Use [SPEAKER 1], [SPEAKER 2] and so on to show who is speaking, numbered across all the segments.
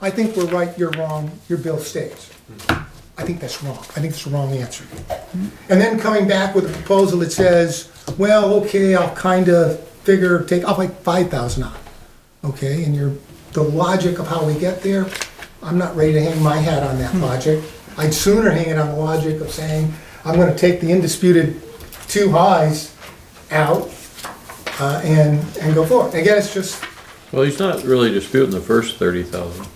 [SPEAKER 1] I think we're right, you're wrong, your bill stays. I think that's wrong. I think it's the wrong answer. And then coming back with a proposal that says, well, okay, I'll kind of figure, take, I'll like five thousand out. Okay, and your, the logic of how we get there, I'm not ready to hang my hat on that logic. I'd sooner hang it on the logic of saying, I'm gonna take the indisputed two highs out, uh, and, and go forward. Again, it's just,
[SPEAKER 2] Well, he's not really disputing the first thirty thousand.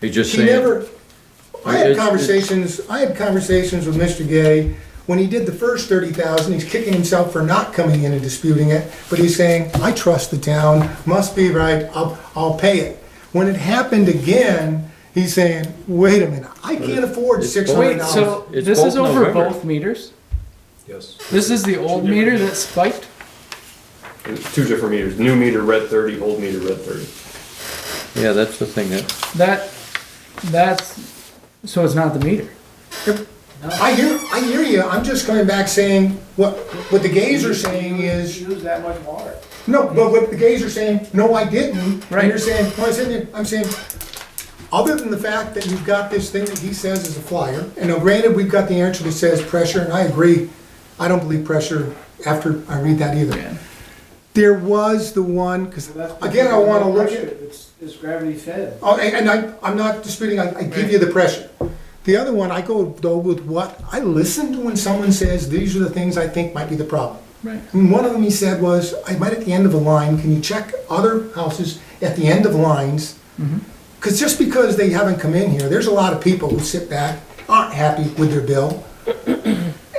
[SPEAKER 2] He's just
[SPEAKER 1] She
[SPEAKER 2] saying.
[SPEAKER 1] never, I
[SPEAKER 2] It's-
[SPEAKER 1] had
[SPEAKER 2] it's-
[SPEAKER 1] conversations, I had conversations with Mr. Gay, when he did the first thirty thousand, he's kicking himself for not coming in and disputing it, but he's saying, I trust the town, must be right, I'll, I'll pay it. When it happened again, he's saying, wait a minute, I can't afford
[SPEAKER 2] It's
[SPEAKER 1] six hundred
[SPEAKER 2] both-
[SPEAKER 3] Wait,
[SPEAKER 1] dollars.
[SPEAKER 3] so
[SPEAKER 2] It's
[SPEAKER 3] this
[SPEAKER 2] both
[SPEAKER 3] is over
[SPEAKER 2] November.
[SPEAKER 3] both meters?
[SPEAKER 4] Yes.
[SPEAKER 3] This is the old meter that spiked?
[SPEAKER 4] It's Two different meters, new meter red thirty, old meter red thirty.
[SPEAKER 2] Yeah, that's the thing that,
[SPEAKER 3] That, that's, so it's not the meter.
[SPEAKER 1] I hear, I hear you, I'm just coming back saying, what, what the gays are saying is. Use that much water. No, but what the gays are saying, no, I didn't, and you're
[SPEAKER 3] Right.
[SPEAKER 1] saying, well, I said, I'm saying, other than the fact that you've got this thing that he says is a flyer, and now granted, we've got the answer that says pressure, and I agree, I don't believe pressure after I read that either. There was the one, cause again, I wanna look at.
[SPEAKER 5] It's, it's gravity fed.
[SPEAKER 1] Oh, and and I, I'm not disputing, I, I give you the pressure. The other one, I go though with what, I listen to when someone says, these are the things I think might be the problem.
[SPEAKER 3] Right.
[SPEAKER 1] And one of them he said was, I might at the end of a line, can you check other houses at the end of lines? Because just because they haven't come in here, there's a lot of people who sit back, aren't happy with their bill,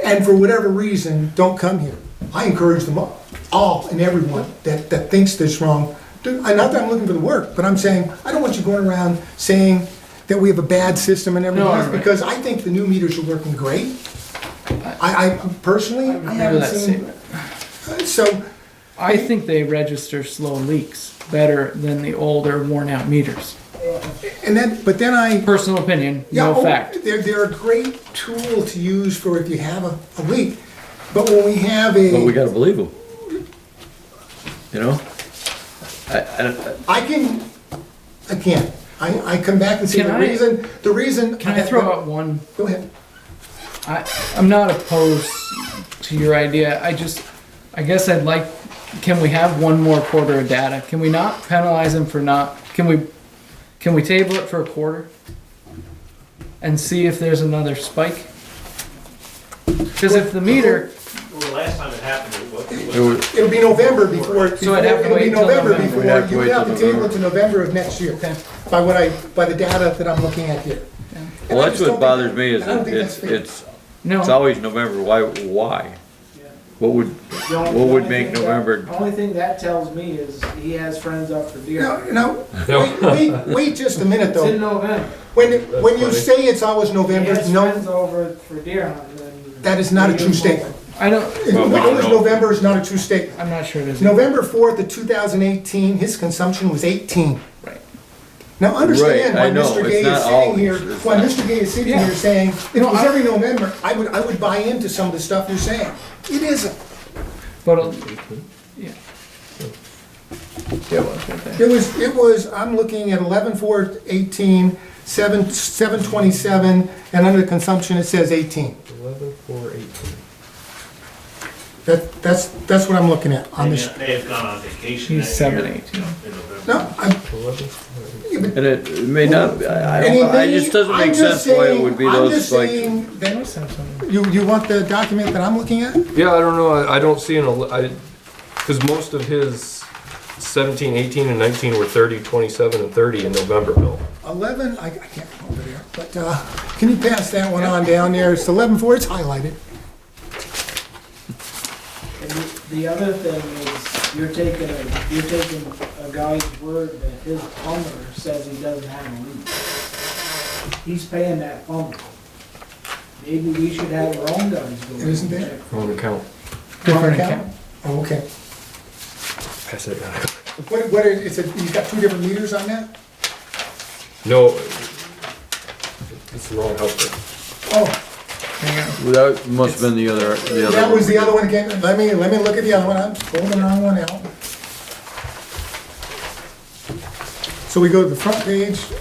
[SPEAKER 1] and for whatever reason, don't come here. I encourage them all, all and everyone that, that thinks this wrong. to- And not that I'm looking for the work, but I'm saying, I don't want you going around saying that we have a bad system and everything
[SPEAKER 3] No,
[SPEAKER 1] else,
[SPEAKER 3] right.
[SPEAKER 1] because I think the new meters are working great. I, I personally, I
[SPEAKER 3] agree with
[SPEAKER 1] haven't
[SPEAKER 3] that
[SPEAKER 1] seen. So,
[SPEAKER 3] I think they register slow leaks better than the older worn out meters.
[SPEAKER 1] and then, but then I,
[SPEAKER 3] Personal opinion,
[SPEAKER 1] Yeah,
[SPEAKER 3] no
[SPEAKER 1] oh,
[SPEAKER 3] fact.
[SPEAKER 1] They're, they're a great tool to use for if you have a, a leak, but when we have a,
[SPEAKER 2] well,
[SPEAKER 1] I
[SPEAKER 2] we gotta believe him. You know? I, I,
[SPEAKER 1] can, I can't. I, I come back and say
[SPEAKER 3] Can
[SPEAKER 1] the
[SPEAKER 3] I-
[SPEAKER 1] reason, the reason.
[SPEAKER 3] Can I throw out one?
[SPEAKER 1] Go ahead.
[SPEAKER 3] I, I'm not opposed to your idea. I just, I guess I'd like, can we have one more quarter of data? Can we not penalize them for not, can we, can we table it for a quarter? And see if there's another spike? Cause if the meter,
[SPEAKER 6] Well, the last time it happened, it was, it was
[SPEAKER 2] it would-
[SPEAKER 1] It'll be November before,
[SPEAKER 3] So
[SPEAKER 1] before
[SPEAKER 3] I'd have to
[SPEAKER 1] it'll be
[SPEAKER 3] wait till
[SPEAKER 1] November
[SPEAKER 3] November.
[SPEAKER 1] before,
[SPEAKER 2] We'd have to
[SPEAKER 1] you
[SPEAKER 2] wait
[SPEAKER 1] have to
[SPEAKER 2] till
[SPEAKER 1] table it
[SPEAKER 2] November.
[SPEAKER 1] to November of next year.
[SPEAKER 3] Okay.
[SPEAKER 1] By what I, by the data that I'm looking at here.
[SPEAKER 2] well, that's what bothers me is
[SPEAKER 1] I don't
[SPEAKER 2] that
[SPEAKER 1] think that's
[SPEAKER 2] it's,
[SPEAKER 1] fair.
[SPEAKER 2] it's, it's
[SPEAKER 3] no,
[SPEAKER 2] always November, why, why? What would, what would make November,
[SPEAKER 5] Only thing that tells me is he has friends up for deer.
[SPEAKER 1] No, no, wait, wait, wait just a minute
[SPEAKER 5] It's in
[SPEAKER 1] though.
[SPEAKER 5] November.
[SPEAKER 1] When, when you
[SPEAKER 4] funny.
[SPEAKER 1] say it's always
[SPEAKER 5] He
[SPEAKER 1] November,
[SPEAKER 5] has
[SPEAKER 1] no,
[SPEAKER 5] friends over for deer hunting. and-
[SPEAKER 1] that is not a true statement.
[SPEAKER 3] I don't,
[SPEAKER 4] Well, we don't
[SPEAKER 1] Always
[SPEAKER 4] know.
[SPEAKER 1] November is not a true statement.
[SPEAKER 3] I'm not sure it is.
[SPEAKER 1] November 4th of 2018, his consumption was 18.
[SPEAKER 3] Right.
[SPEAKER 1] Now, understand
[SPEAKER 2] Right, I
[SPEAKER 1] why
[SPEAKER 2] know,
[SPEAKER 1] Mr.
[SPEAKER 2] it's
[SPEAKER 1] Gay
[SPEAKER 2] not
[SPEAKER 1] is sitting
[SPEAKER 2] always,
[SPEAKER 1] here,
[SPEAKER 2] it's
[SPEAKER 1] why
[SPEAKER 2] not.
[SPEAKER 1] Mr. Gay is sitting
[SPEAKER 3] Yeah.
[SPEAKER 1] here saying, if it
[SPEAKER 3] No,
[SPEAKER 1] was
[SPEAKER 3] I-
[SPEAKER 1] every November, I would, I would buy into some of the stuff you're saying. It isn't.
[SPEAKER 3] But, uh, yeah. Yeah, well, it's right there.
[SPEAKER 1] It was, it was, I'm looking at 11/4/18, 7, 727, and under consumption, it says 18.
[SPEAKER 4] Eleven, four, eighteen.
[SPEAKER 1] That, that's, that's what I'm looking at on this.
[SPEAKER 6] they have gone on vacation.
[SPEAKER 3] He's
[SPEAKER 6] that
[SPEAKER 3] seven,
[SPEAKER 6] year,
[SPEAKER 3] eight,
[SPEAKER 6] you know,
[SPEAKER 3] yeah.
[SPEAKER 6] in November.
[SPEAKER 1] No, I'm,
[SPEAKER 2] and it may not, I, I
[SPEAKER 1] and
[SPEAKER 2] don't, it
[SPEAKER 1] they-
[SPEAKER 2] just doesn't
[SPEAKER 1] I'm
[SPEAKER 2] make
[SPEAKER 1] just
[SPEAKER 2] sense why it
[SPEAKER 1] saying-
[SPEAKER 2] would be
[SPEAKER 1] I'm
[SPEAKER 2] those
[SPEAKER 1] just
[SPEAKER 2] like.
[SPEAKER 1] saying that- You, you want the document that I'm looking at?
[SPEAKER 4] Yeah, I don't know, I, I don't see an, ele- I, cause most of his seventeen, eighteen, and nineteen were thirty, twenty-seven, and thirty in November bill.
[SPEAKER 1] 11, I I can't go over there, but uh, can you pass that one on down there? It's 11-4, it's highlighted.
[SPEAKER 5] And the- the other thing is, you're taking, a you're taking a guy's word that his plumber says he doesn't have a leak. He's paying that plumber. Maybe we should have our own guys go. in and
[SPEAKER 1] Isn't there?
[SPEAKER 5] check.
[SPEAKER 4] Wrong account.
[SPEAKER 3] Different account.
[SPEAKER 1] Oh, okay.
[SPEAKER 4] Pass that down.
[SPEAKER 1] What, what, are- it's a, you've got two different meters on that?
[SPEAKER 4] No, it's the wrong house.
[SPEAKER 1] Oh,
[SPEAKER 2] Well, That must have been the other, the other.
[SPEAKER 1] that was
[SPEAKER 2] one.
[SPEAKER 1] the other one again. Let me, let me look at the other one. I'm pulling the wrong one out. So we go to the front page